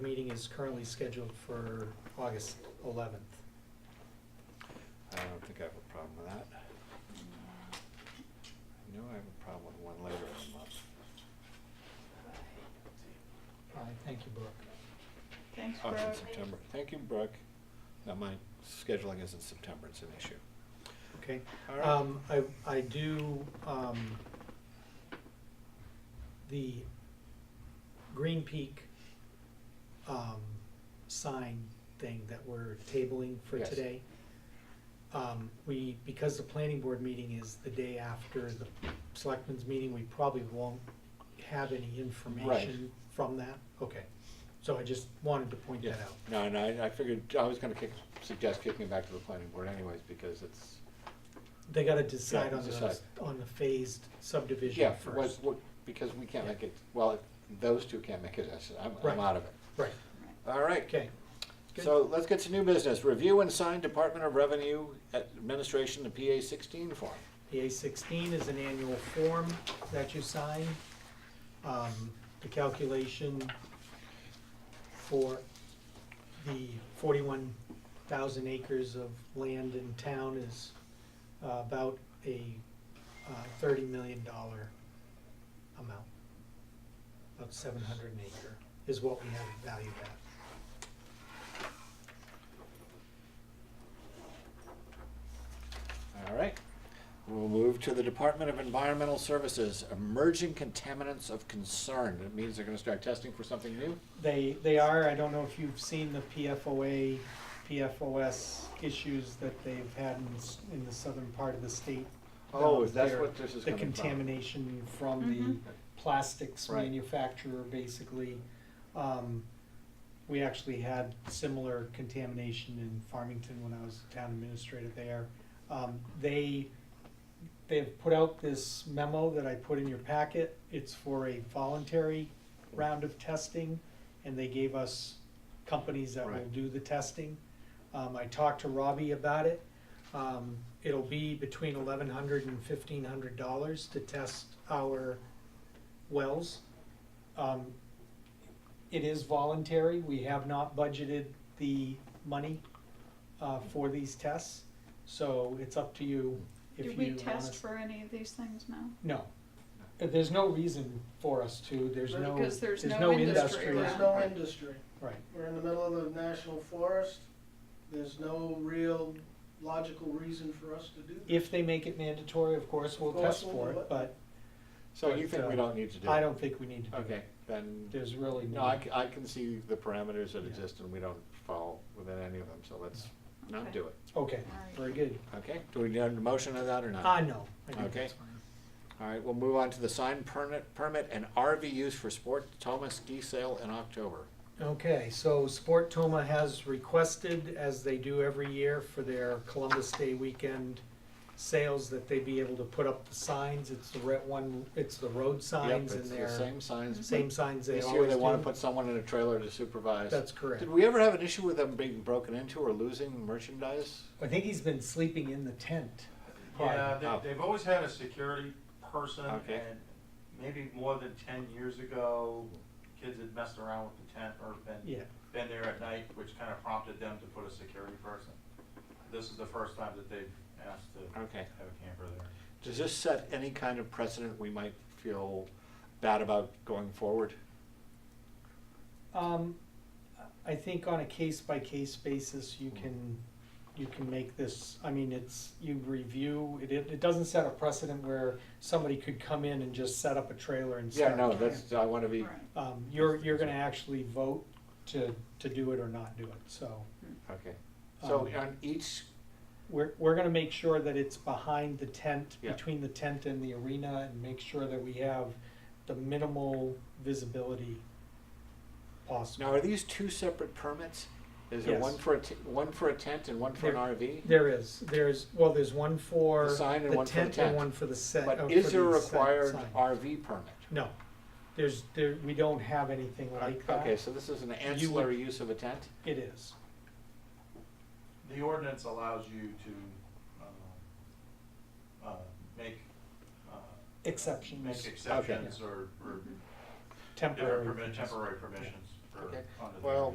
Meeting is currently scheduled for August 11th. I don't think I have a problem with that. I know I have a problem with one later in the month. All right, thank you, Brooke. Thanks, Oh, Brooke. it's in September. Thank you, Brooke. Now, my scheduling is in September, it's an issue. Okay. All right. Um, I, I do, um, the Green Peak, um, sign thing that we're tabling for Yes. today. Um, we, because the planning board meeting is the day after the selectmen's meeting, we probably won't have any information from that. Okay, so I just wanted to point Yeah, that out. no, no, I, I figured, I was gonna kick, suggest kicking it back to the planning board anyways, because it's, They gotta decide Yeah, on the, decide. on the phased subdivision yeah, first. was, what, because we can't make it, well, if those two can't make it, I said, I'm, Right. I'm out of it. Right, All right. okay. Good. So let's get to new business. Review and sign Department of Revenue Administration, the PA sixteen form. The A sixteen is an annual form that you sign. Um, The calculation for the forty-one thousand acres of land in town is uh, about a uh, thirty million dollar amount. About seven hundred an acre is what we have it valued at. All right. We'll move to the Department of Environmental Services, emerging contaminants of concern. That means they're gonna start testing for something new? They, they are, I don't know if you've seen the PFOA, PFOS issues that they've had in, s- in the southern part of the state. Oh, Um, is that's they're- what this is The coming from? contamination from the plastics Right. manufacturer, basically. Um, We actually had similar contamination in Farmington when I was town administrator there. Um, They, they've put out this memo that I put in your packet. It's for a voluntary round of testing, and they gave us companies that will Right. do the testing. Um, I talked to Robbie about it. Um, it'll be between eleven hundred and fifteen hundred dollars to test our wells. Um, it is voluntary, we have not budgeted the money, uh, for these tests, so it's up to you if you Do want we us. test for any of these things now? No. Uh, There's no reason for us to, there's no, Because there's there's no no industry industry. around. There's no industry. Right, We're in the middle of the national forest. There's no real logical reason for us to do that. if they make it mandatory, of course, we'll Of course test we'll for do it, it. but So you think we But, uh, don't need to do? I it? don't think we need to do Okay, that. then, There's really no, I, no, c- I can see the parameters that Yeah. exist and we don't fall within any of them, so let's not Okay. do it. okay, Alright. very good. Okay, do we need a motion of that or not? Ah, no, I think Okay. that's fine. All right, we'll move on to the sign permit, permit and RV use for sport Thomas ski sale in October. Okay, so Sport Toma has requested, as they do every year for their Columbus Day weekend sales, that they be able to put up the signs, it's the red one, it's the road signs Yep, and it's the their, same signs. same signs they This year always they wanna do. put someone in a trailer to supervise. That's correct. Did we ever have an issue with them being broken into or losing merchandise? I think he's been sleeping in the tent. Yeah, Oh. they, they've always had a security person, Okay. and maybe more than ten years ago, kids had messed around with the tent or been, Yeah, been there at night, which kind of prompted them to put a security person. This is the first time that they've asked to have Okay. a camper there. Does this set any kind of precedent we might feel bad about going forward? um, I think on a case-by-case basis, you can, you can make this, I mean, it's, you review, it, it it doesn't set a precedent where somebody could come in and just set up a trailer and start. Yeah, no, that's, I wanna be, Right. Um, you're, you're gonna actually vote to, to do it or not do it, so Hmm. okay. So Um, on each, we're, we're gonna make sure that it's behind the tent, Yeah. between the tent and the arena, and make sure that we have the minimal visibility possible. now are these two separate permits? Is there Yes. one for a, t- one for a tent and one for an There- RV? There is, there's, well, there's one for The sign and the one for the tent and tent. one for the set. uh, But for is there a the set required sign. RV permit? No, there's, there, we don't have anything like that. Okay, so this is an ancillary use of a tent? It is, The ordinance allows you to, um, uh, make, uh. Exceptions. Mm-hmm. Make exceptions or, or Mhm. different temporary. permi- temporary permissions or for Okay. under the. Well,